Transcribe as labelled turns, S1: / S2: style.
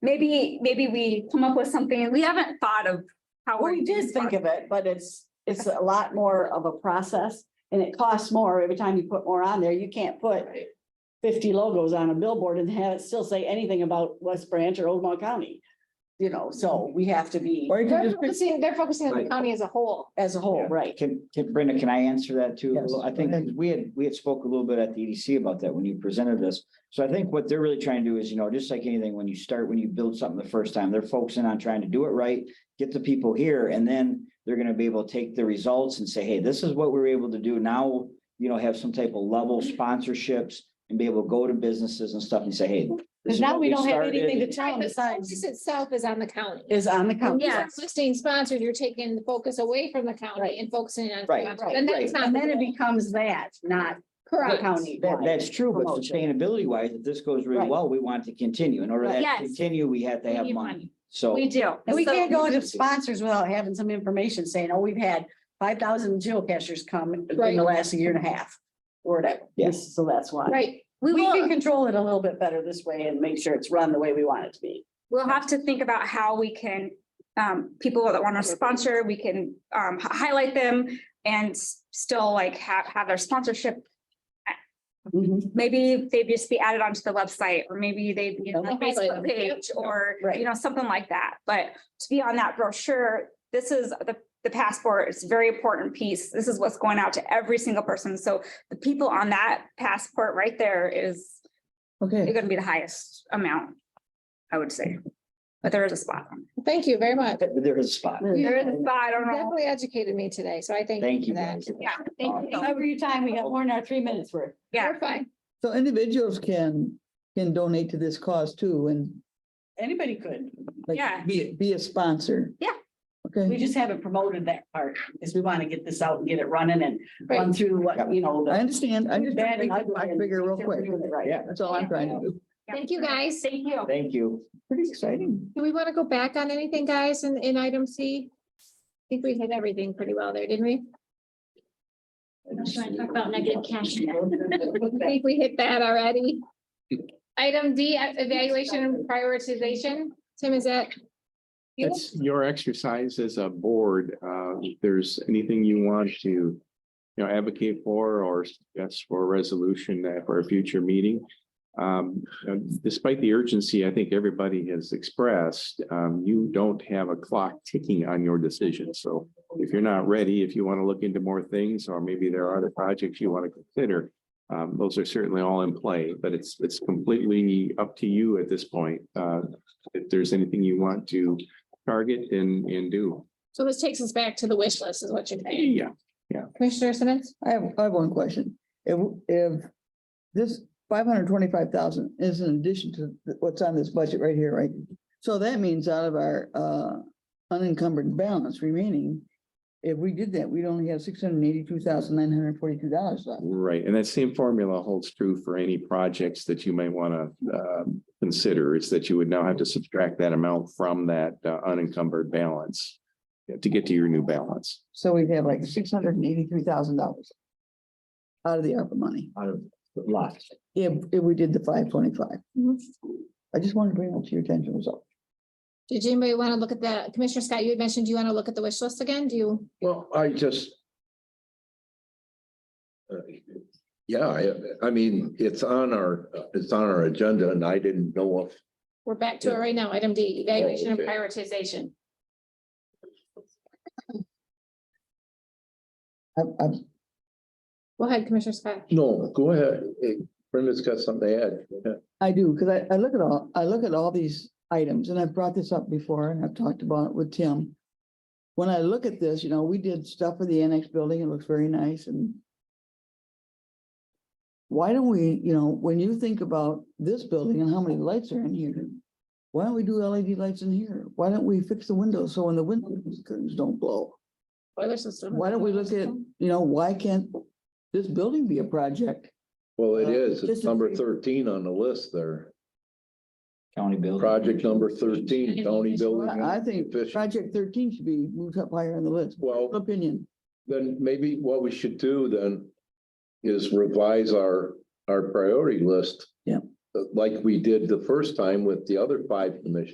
S1: Maybe, maybe we come up with something, we haven't thought of how.
S2: Well, we did think of it, but it's, it's a lot more of a process and it costs more every time you put more on there. You can't put fifty logos on a billboard and have it still say anything about West Branch or Old Oldham County. You know, so we have to be
S3: Or you
S4: They're
S3: could just,
S4: focusing, they're focusing on the
S5: Right.
S4: county as a whole.
S2: as a whole, right?
S3: can, can, Brenda, can I answer that too?
S2: Yes.
S3: I think we had, we had spoke a little bit at the EDC about that when you presented this. So I think what they're really trying to do is, you know, just like anything, when you start, when you build something the first time, they're focusing on trying to do it right. Get the people here and then they're gonna be able to take the results and say, hey, this is what we were able to do now. You know, have some type of level sponsorships and be able to go to businesses and stuff and say, hey. this
S2: Because
S3: is
S2: now
S3: what
S2: we don't have
S3: started.
S2: anything to tell
S4: Right,
S2: them
S4: but the
S2: besides
S4: focus itself is on the county.
S2: is on the county.
S1: Yeah. Yes.
S4: Listing sponsors, you're taking the focus away from the
S2: Right.
S4: county and focusing on.
S3: Right,
S4: sponsors,
S2: right,
S4: And
S3: right.
S4: that's not.
S2: And then it becomes that, not
S4: Correct.
S2: county.
S3: That, that's true, but
S2: Promotion.
S3: sustainability wise, if this goes really
S2: Right.
S3: well, we want to continue. In order
S2: Right.
S3: that
S1: Yes.
S3: to continue, we have to
S1: We
S3: have
S1: need
S3: money.
S1: money.
S3: So,
S1: We do.
S2: And we
S1: So-
S2: can't go into sponsors without having some information saying, oh, we've had five thousand geocachers come in
S4: Right.
S2: the last year and a half. Or whatever.
S3: Yes.
S2: So that's why.
S4: Right,
S1: We
S2: We can
S1: will,
S2: control it a little bit better this way and make sure it's run the way we want it to be.
S1: we'll have to think about how we can, um, people that want to sponsor, we can, um, h- highlight them and s- still like have, have their sponsorship. Mm-hmm. Maybe they just be added onto the website or maybe they be on the
S4: Okay.
S1: Facebook page or,
S2: Right.
S1: you know, something like that. But to be on that brochure, this is the, the passport is a very important piece. This is what's going out to every single person. So the people on that passport right there is
S3: okay.
S1: You're gonna be the highest amount, I would say. But there is a spot. on
S4: thank you very much.
S3: There is a spot.
S1: it. There is a spot, I
S4: You
S1: don't know.
S4: Definitely educated me today, so I thank.
S3: Thank you.
S4: for that.
S3: guys.
S1: Yeah, thank you.
S2: Every time we got more than our three minutes worth.
S1: Yeah,
S4: You're fine.
S3: So individuals can, can donate to this cause too and
S2: Anybody could.
S1: like, Yeah.
S3: be, be a sponsor.
S1: Yeah.
S2: We
S3: Okay.
S2: just haven't promoted that part because we want to get this out and get it running and run through what, you know. the-
S3: understand.
S2: Bad and ugly and get rid of it, right.
S3: Yeah, that's all I'm trying to do.
S4: Thank you, guys.
S1: thank you.
S3: Thank you. Pretty exciting.
S4: Do we want to go back on anything, guys, in, in item C? I think we hit everything pretty well there, didn't we? I think we hit that already. Item D, uh, evaluation and prioritization. Tim, is that? you?
S6: It's your exercise as a board. Uh, if there's anything you want to, you know, advocate for or suggest for a resolution that- for a future meeting. Um, despite the urgency I think everybody has expressed, um, you don't have a clock ticking on your decision. So if you're not ready, if you want to look into more things, or maybe there are other projects you want to consider, um, those are certainly all in play, but it's, it's completely up to you at this point. Uh, if there's anything you want to target and, and do.
S4: So this takes us back to the wish list is what you're saying.
S6: Yeah,
S4: Commissioner Simmons?
S7: I have, I have one question. If, if this five hundred twenty-five thousand is in addition to th- what's on this budget right here, right? So that means out of our, uh, unencumbered balance remaining, if we did that, we'd only have six hundred eighty-two thousand nine hundred forty-two dollars left.
S6: right. And that same formula holds true for any projects that you may want to consider is that you would now have to subtract that amount from that uh, unencumbered balance yeah, to get to your new balance.
S7: So we'd have like six hundred and eighty-three thousand dollars out of the ARPA money,
S3: Out of lots.
S7: if, if we did the five twenty-five.
S4: Mhm.
S7: I just wanted to bring it to your attention, was all.
S4: Did anybody want to look at that? Commissioner Scott, you had mentioned, do you want to look at the wish list again? Do you?
S8: Well, I just. uh, Yeah, I, I mean, it's on our, it's on our agenda and I didn't know if,
S4: We're back to it right now. Item D, evaluation and
S8: okay.
S4: prioritization.
S7: I, I,
S4: Go ahead, Commissioner Scott.
S8: no, go ahead. Eh, Brenda's got something to add. Yeah.
S7: I do, because I, I look at all, I look at all these items, and I've brought this up before, and I've talked about it with Tim. When I look at this, you know, we did stuff for the annex building, it looks very nice, and why don't we, you know, when you think about this building and how many lights are in here, why don't we do LED lights in here? Why don't we fix the windows so when the windows curtains don't blow?
S4: Boiler system.
S7: Why don't we look at, you know, why can't this building be a project?
S8: Well, it
S7: Uh,
S8: is. It's
S7: just a
S8: number
S7: brief-
S8: thirteen on the list there.
S3: County building.
S8: Project number thirteen, county building.
S7: I I think
S8: efficiency.
S7: project thirteen should be moved up higher on the list.
S8: Well,
S7: opinion.
S8: then maybe what we should do then is revise our, our priority list.
S7: Yeah.
S8: uh, Like we did the first time with the other five commissions.